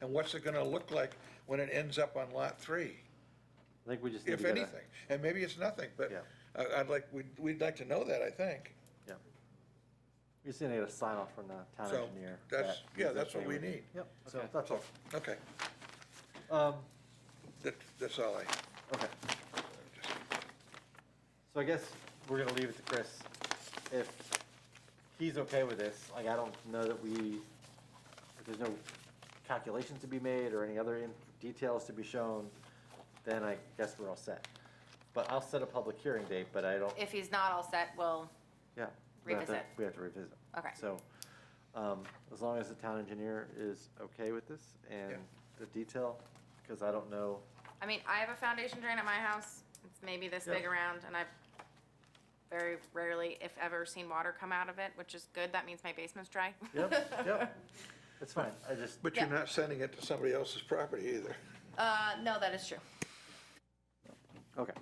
And what's it gonna look like when it ends up on lot three, I think we just need to if get a- anything? And maybe it's nothing, but Yeah. I, I'd like, we'd, we'd like to know that, I think. Yeah. We just need to get a sign off from the town So, engineer. that's- that yeah, he's that's what okay we with it. need. Yep, so that's all. Okay, Um, that, that's all I, okay, just, so I guess we're gonna leave it to Chris. If he's okay with this, like, I don't know that we, if there's no calculations to be made or any other in- details to be shown, then I guess we're all set. But I'll set a public hearing date, but I don't, If he's not all set, well, yeah. we have to- Revisit. We have to revisit. Okay. So, um, as long as the town engineer is okay with this Yeah. and the detail, because I don't know, I mean, I have a foundation drain at my house. It's maybe this big Yeah. around, and I've very rarely, if ever, seen water come out of it, which is good. That means my basement's dry. Yep, yep. It's fine, I just, but you're Yeah. not sending it to somebody else's property either. Uh, no, that is true. okay.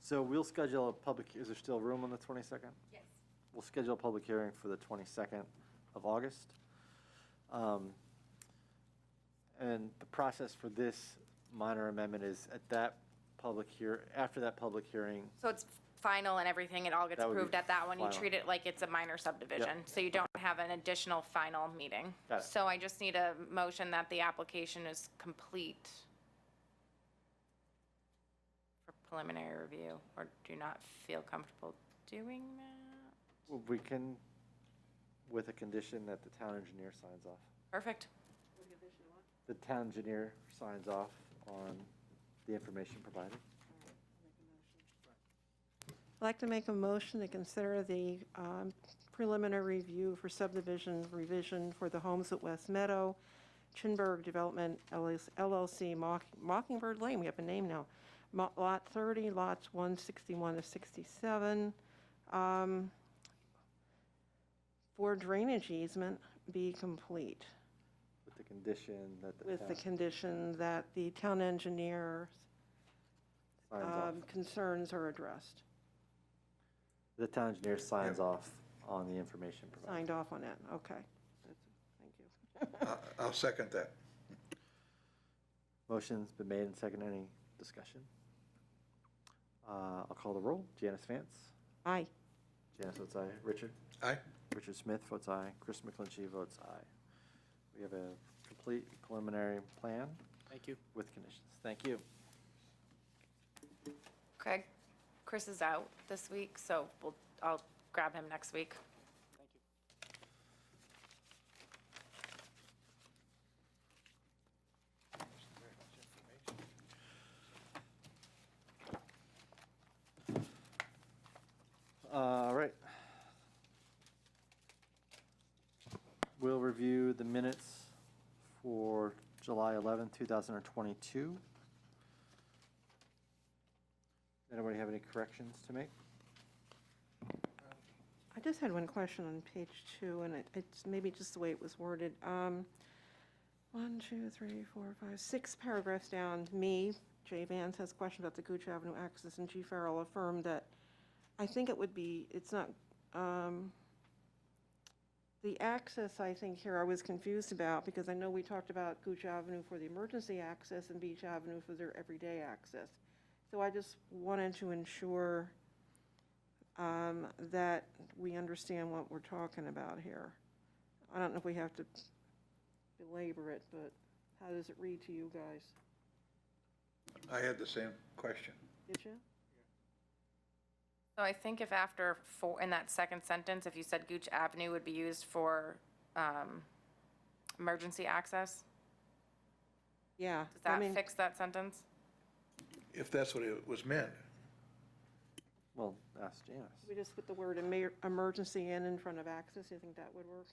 So we'll schedule a public, is there still room on the 22nd? Yes. We'll schedule a public hearing for the 22nd of August. Um, And the process for this minor amendment is at that public hear, after that public hearing, So it's final and everything. It all gets That would be approved at that one. You final. treat it like it's a minor subdivision, so you don't have an additional final meeting. Got it. So I just need a motion that the application is complete for preliminary review, or do you not feel comfortable doing that. we can, with a condition that the town engineer signs off. Perfect. The town engineer signs off on the information provided. I'd like to make a motion to consider the um, preliminary review for subdivision revision for the homes at West Meadow, Chinburg Development LLC, Mock- Mockingbird Lane, we have a name now, Mo- Lot 30, lots 161 to 67, um, for drainage easement be complete, With the condition that the with the town condition that the town engineer's signs off. um, concerns are addressed. The town engineer signs off on the information provided. Signed off on it, okay. Thank you. I- I'll second that. Motion's been made and seconded. Any discussion? Uh, I'll call the roll. Janice Vance. Aye. Janice votes aye. Richard? Aye? Richard Smith votes aye. Chris McClinchy votes aye. We have a complete preliminary plan Thank you. with conditions. Thank you. Craig, Chris is out this week, so we'll, I'll grab him next week. Uh, All right. We'll review the minutes for July 11, 2022. Anybody have any corrections to make? I just had one question on page two, and it, it's maybe just the way it was worded. Um, one, two, three, four, five, six paragraphs down, me, Jay Vance has a question about the Gooch Avenue access, and G Farrell affirmed that, I think it would be, it's not, um, the access, I think here, I was confused about, because I know we talked about Gooch Avenue for the emergency access and Beach Avenue for their everyday access. So I just wanted to ensure um, that we understand what we're talking about here. I don't know if we have to belabor it, but how does it read to you guys? I had the same question. Did you? So I think if after four, in that second sentence, if you said Gooch Avenue would be used for, um, emergency access, Yeah. does I that mean, fix that sentence? If that's what it was meant, Well, ask Janice. We just put the word emer- emergency in in front of access, you think that would work?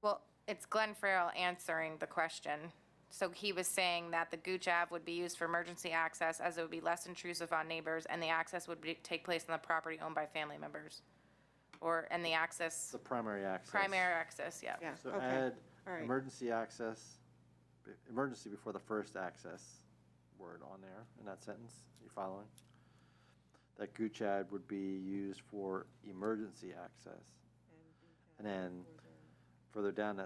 Well, it's Glenn Farrell answering the question. So he was saying that the Gooch Ave would be used for emergency access as it would be less intrusive on neighbors and the access would be, take place on the property owned by family members. Or, and the access, The primary access. primary access, yeah. Yeah, So uh, okay. add all right. emergency access, b- emergency before the first access word on there in that sentence. You following? That Goochad would be used for emergency access. And then further down that